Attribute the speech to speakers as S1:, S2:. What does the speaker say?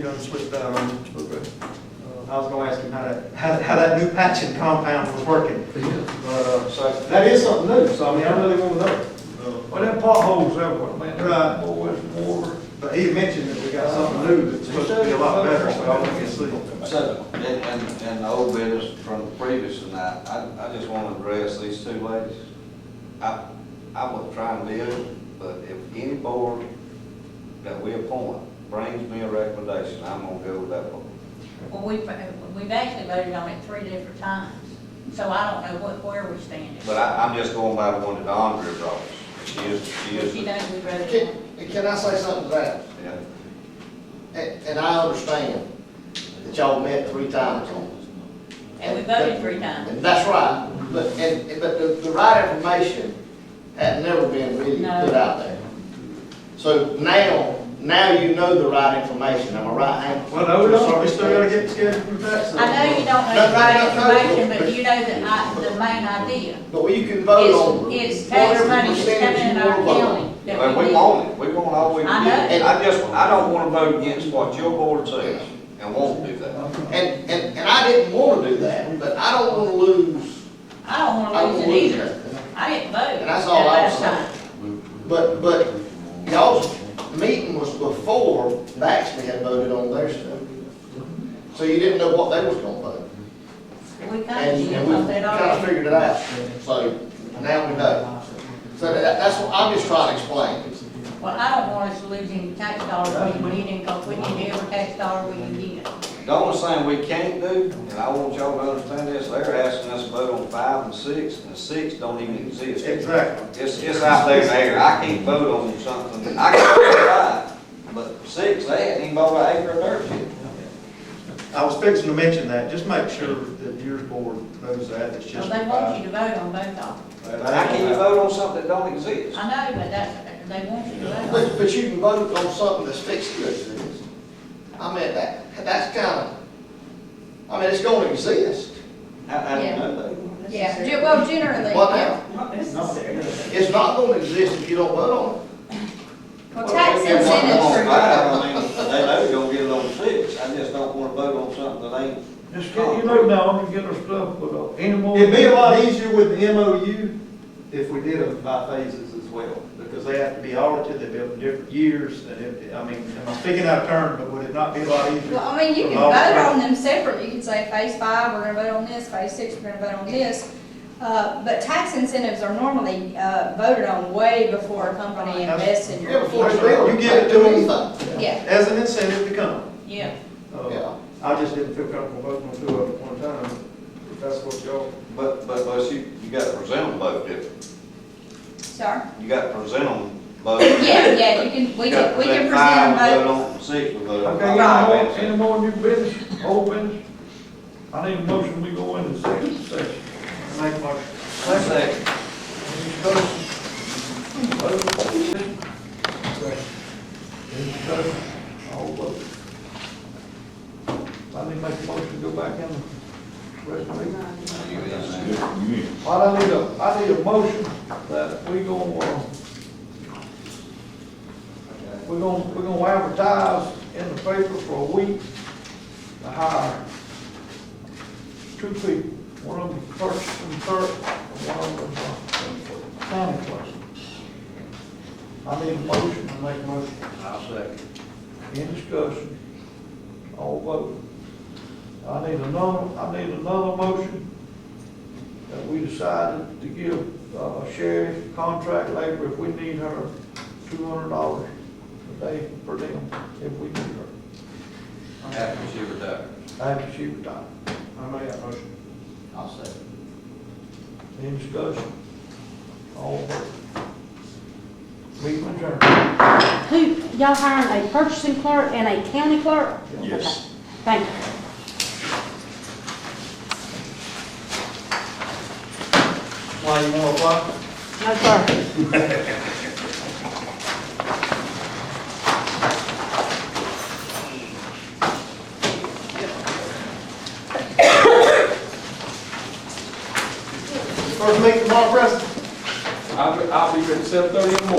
S1: You done switched that on.
S2: Okay.
S1: um, Uh, I was gonna ask him how that, how, how that new patching compound was working.
S2: Yeah.
S1: But, uh, so, that is something new, so I mean, I really wanna know.
S3: Well, them potholes everywhere, man.
S1: Right.
S3: Oh, it's water.
S1: But he mentioned that we got something new that's supposed to be a lot better, so I wanna get see.
S4: So, and, and, and the old business from the previous tonight, I, I just wanna address these two ladies. I, I would try and deal, but if any board that we appoint brings me a recommendation, I'm gonna go with that board.
S5: Well, we've, we've actually voted on it three different times, so I don't know what, where we stand.
S4: But I, I'm just going by the one that Andrea brought. She is, she is,
S5: She
S4: yeah,
S5: knows we voted
S6: Can,
S5: on it.
S6: can I say something to that? And, and I understand that y'all met three times on this.
S5: And we voted three times.
S6: And that's right, but, and, and- but the, the right information had never been really put
S5: No.
S6: out there. So now, now you know the right information, am I right, Hank?
S1: Well, no, we don't, we still gotta get scheduled for that, so.
S5: I know you don't know the right information, but you know the, I- the main idea.
S6: But you can vote on.
S5: It's, it's tax money
S6: whatever
S5: that's
S6: percentage
S5: coming in
S6: you
S5: our
S6: wanna vote on.
S5: county
S4: and
S5: that we
S4: we
S5: need.
S4: want it, we want all we
S5: I
S4: can get.
S6: know.
S4: I just, I don't wanna vote against what your board says, and won't do that.
S6: And, and, and I didn't wanna do that, but I don't wanna lose,
S5: I don't
S6: I
S5: wanna
S6: don't
S5: lose
S6: wanna
S5: it
S6: lose
S5: either.
S6: that.
S5: I didn't vote that
S6: And that's all I
S5: last
S6: was saying.
S5: time.
S6: But, but y'all's meeting was before Baxter had voted on their stuff. So you didn't know what they was gonna vote.
S5: We
S6: And,
S5: kind
S6: and
S5: of,
S6: we
S5: that
S6: kinda
S5: already.
S6: figured it out. So now we know. So that, that's what I'm just trying to explain.
S5: Well, I don't want us to lose any tax dollars we need in, because we need every tax dollar we can get.
S4: The only thing we can't do, and I want y'all to understand this, they're asking us to vote on five and six, and six don't even exist.
S1: Exactly.
S4: It's, it's out there in the air, I can't vote on something, I can vote on five, but six, they ain't even bought an acre of dirt yet.
S1: I was fixing to mention that, just make sure that your board knows that, it's
S5: Well,
S1: just.
S5: they want you to vote on both of
S4: And I can't even vote on something that don't exist.
S5: them. I know, but that's, they want you to vote on it.
S6: But, but you can vote on something that's fixed to exist. I mean, that, that's kinda, I mean, it's gonna exist.
S4: I, I don't know.
S5: Yeah, ge- well, generally,
S6: What
S5: yeah.
S6: now? It's not gonna exist if you don't vote on it.
S5: Well, tax
S4: They want it on
S5: incentives
S4: five, I mean, they know you're gonna get it on six, I just don't wanna vote on something that ain't,
S3: Just get, you know, now, and get our stuff with, uh, any more.
S1: It'd be a lot easier with the MOU if we did them by phases as well, because they have to be audited, they're built in different years, and if, I mean, am I speaking out of turn, but would it not be a lot easier?
S7: Well, I mean, you
S1: from
S7: can
S1: all
S7: vote on
S1: three?
S7: them separately, you can say phase five, we're gonna vote on this, phase six, we're gonna vote on this. Uh, but tax incentives are normally, uh, voted on way before a company invests in your.
S6: Yeah, before it's
S1: built.
S6: real.
S1: You give it to them.
S7: Yeah,
S1: As an incentive to come.
S5: Yeah,
S1: Uh,
S6: Yeah.
S1: I just didn't feel comfortable voting on two of them at one time, if that's what y'all.
S4: but, but, but you, you gotta present them both different,
S7: sorry.
S4: you gotta present them both.
S7: Yeah, yeah, you can, we can, we can present them
S4: Five,
S7: both.
S4: vote on Six, we vote on
S3: Okay, any more,
S4: five.
S3: any more new business, old business? I need a motion, we go into second session.
S1: Make my
S4: Let's say,
S3: Any discussion? Vote. Any discussion? All vote. I need to make a motion, to go back in the rest of the Well, I need a, I need a motion that we gonna, uh, we gonna, we gonna advertise in the paper for a week to hire two people, one of them first and third, and one of them, uh, county person. I need a motion, I make a motion. I'll second. In discussion, all vote. I need another, I need another motion that we decided to give uh, Sherry contract labor if we need her, two hundred dollars a day per diem, if we need her,
S4: after she retires.
S3: after she retires.
S1: I made that motion.
S6: I'll say.
S3: Any discussion? All in favor? Meeting adjourned.
S8: Who, y'all hiring a purchasing clerk and a county clerk?
S2: Yes.
S8: Thank you.
S1: Why you wanna apply?
S8: No, sir.
S1: First meeting tomorrow, Preston.
S3: I'll be, I'll be at seven thirty in the morning.